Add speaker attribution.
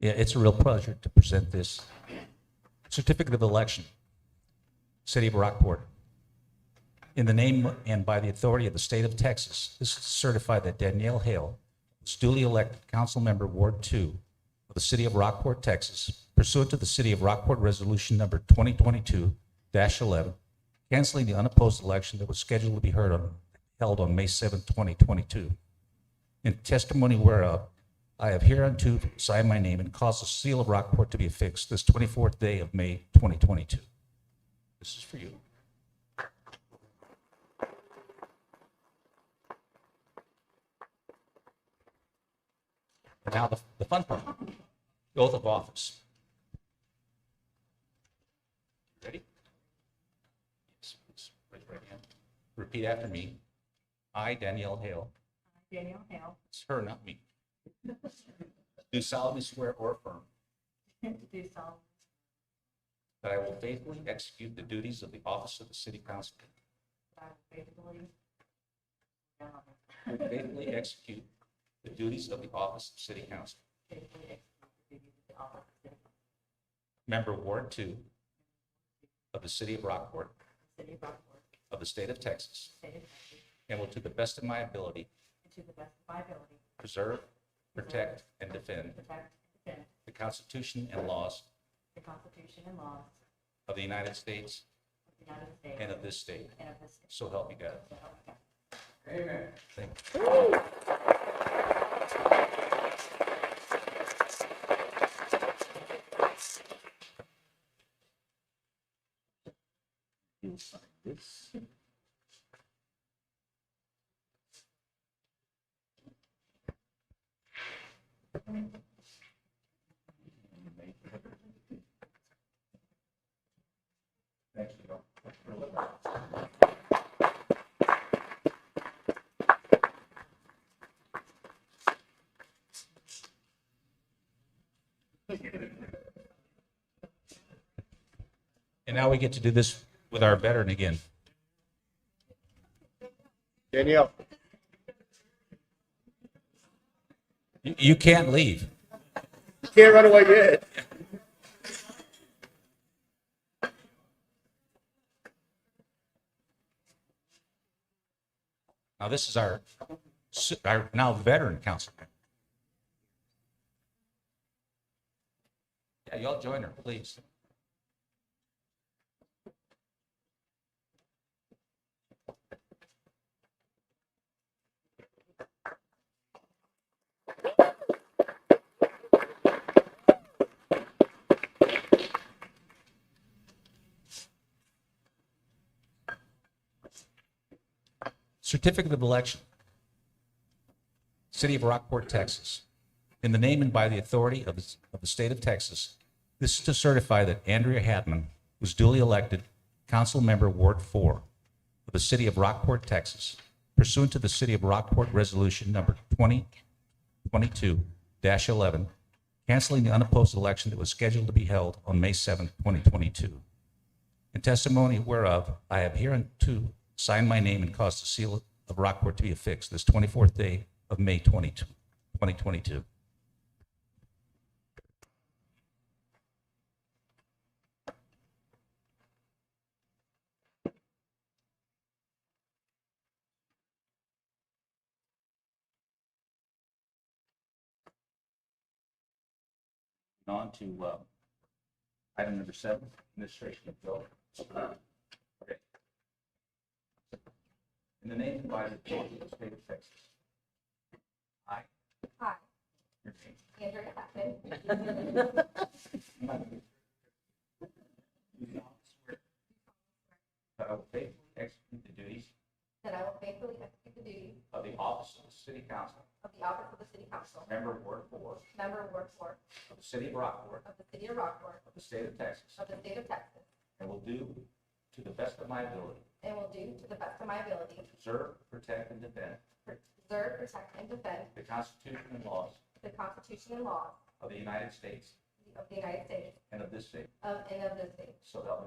Speaker 1: Yeah, it's a real pleasure to present this certificate of election, City of Rockport. In the name and by the authority of the state of Texas, this is certified that Danielle Hale was duly elected council member Ward Two of the City of Rockport, Texas pursuant to the City of Rockport Resolution Number 2022-11, canceling the unopposed election that was scheduled to be heard on, held on May 7, 2022 in testimony whereof I have hereunto signed my name and caused the seal of Rockport to be affixed this 24th day of May 2022. This is for you. And Now, the the fun part, the oath of office. Ready? Yes, please. Raise your right hand. Repeat after me. I, Danielle Hale.
Speaker 2: Danielle Hale,
Speaker 1: It's her, not me. Do solemnly swear or affirm
Speaker 2: do solemnly
Speaker 1: that I will faithfully execute the duties of the office of the city council.
Speaker 2: swear faithfully.
Speaker 1: Faithfully execute the duties of the office of city council.
Speaker 2: Faithfully execute the duties of the office of
Speaker 1: Member Ward Two of the city of Rockport
Speaker 2: the City of Rockport,
Speaker 1: of the state of Texas
Speaker 2: State of Texas,
Speaker 1: and will to the best of my ability
Speaker 2: and to the best of my ability,
Speaker 1: preserve, protect, and defend
Speaker 2: protect and defend
Speaker 1: the Constitution and laws
Speaker 2: the Constitution and laws
Speaker 1: of the United States
Speaker 2: of the United States
Speaker 1: and of this state.
Speaker 2: and of this state.
Speaker 1: So help me God.
Speaker 2: So help me God.
Speaker 1: Thank you. And now we get to do this with our veteran again.
Speaker 3: Danielle.
Speaker 1: You- You can't leave.
Speaker 3: Can't run away yet.
Speaker 1: Now, this is our, our now veteran council. member. Yeah, y'all join her, please. Certificate of election. City of Rockport, Texas. In the name and by the authority of, the- of the state of Texas, this is to certify that Andrea Hatman was duly elected council member Ward Four of the city of Rockport, Texas pursuant to the city of Rockport Resolution Number twenty twenty-two eleven, canceling the unopposed election that was scheduled to be held on May seventh, twenty twenty-two. In testimony whereof, I have hereunto signed my name and caused the seal of Rockport to be affixed this 24th day of May 20 2022. On to uh, item number seven, administration of bill. In the name and by the authority of the state of Texas. I.
Speaker 2: Hi,
Speaker 1: your name.
Speaker 2: Andrea Hackett,
Speaker 1: Do solemnly swear That I will faithfully execute the duties
Speaker 2: that I will faithfully execute the duties
Speaker 1: of the office of the city council
Speaker 2: of the office of the City Council,
Speaker 1: member of Ward Four
Speaker 2: member Ward Four
Speaker 1: of the city of Rockport
Speaker 2: of the City of Rockport,
Speaker 1: of the state of Texas
Speaker 2: of the State of Texas,
Speaker 1: and will do to the best of my ability
Speaker 2: and will do to the best of my ability,
Speaker 1: preserve, protect, and defend
Speaker 2: preserve, protect, and defend
Speaker 1: the Constitution and laws
Speaker 2: the Constitution and laws
Speaker 1: of the United States
Speaker 2: of the United States
Speaker 1: and of this state.
Speaker 2: of and of this state.
Speaker 1: So help me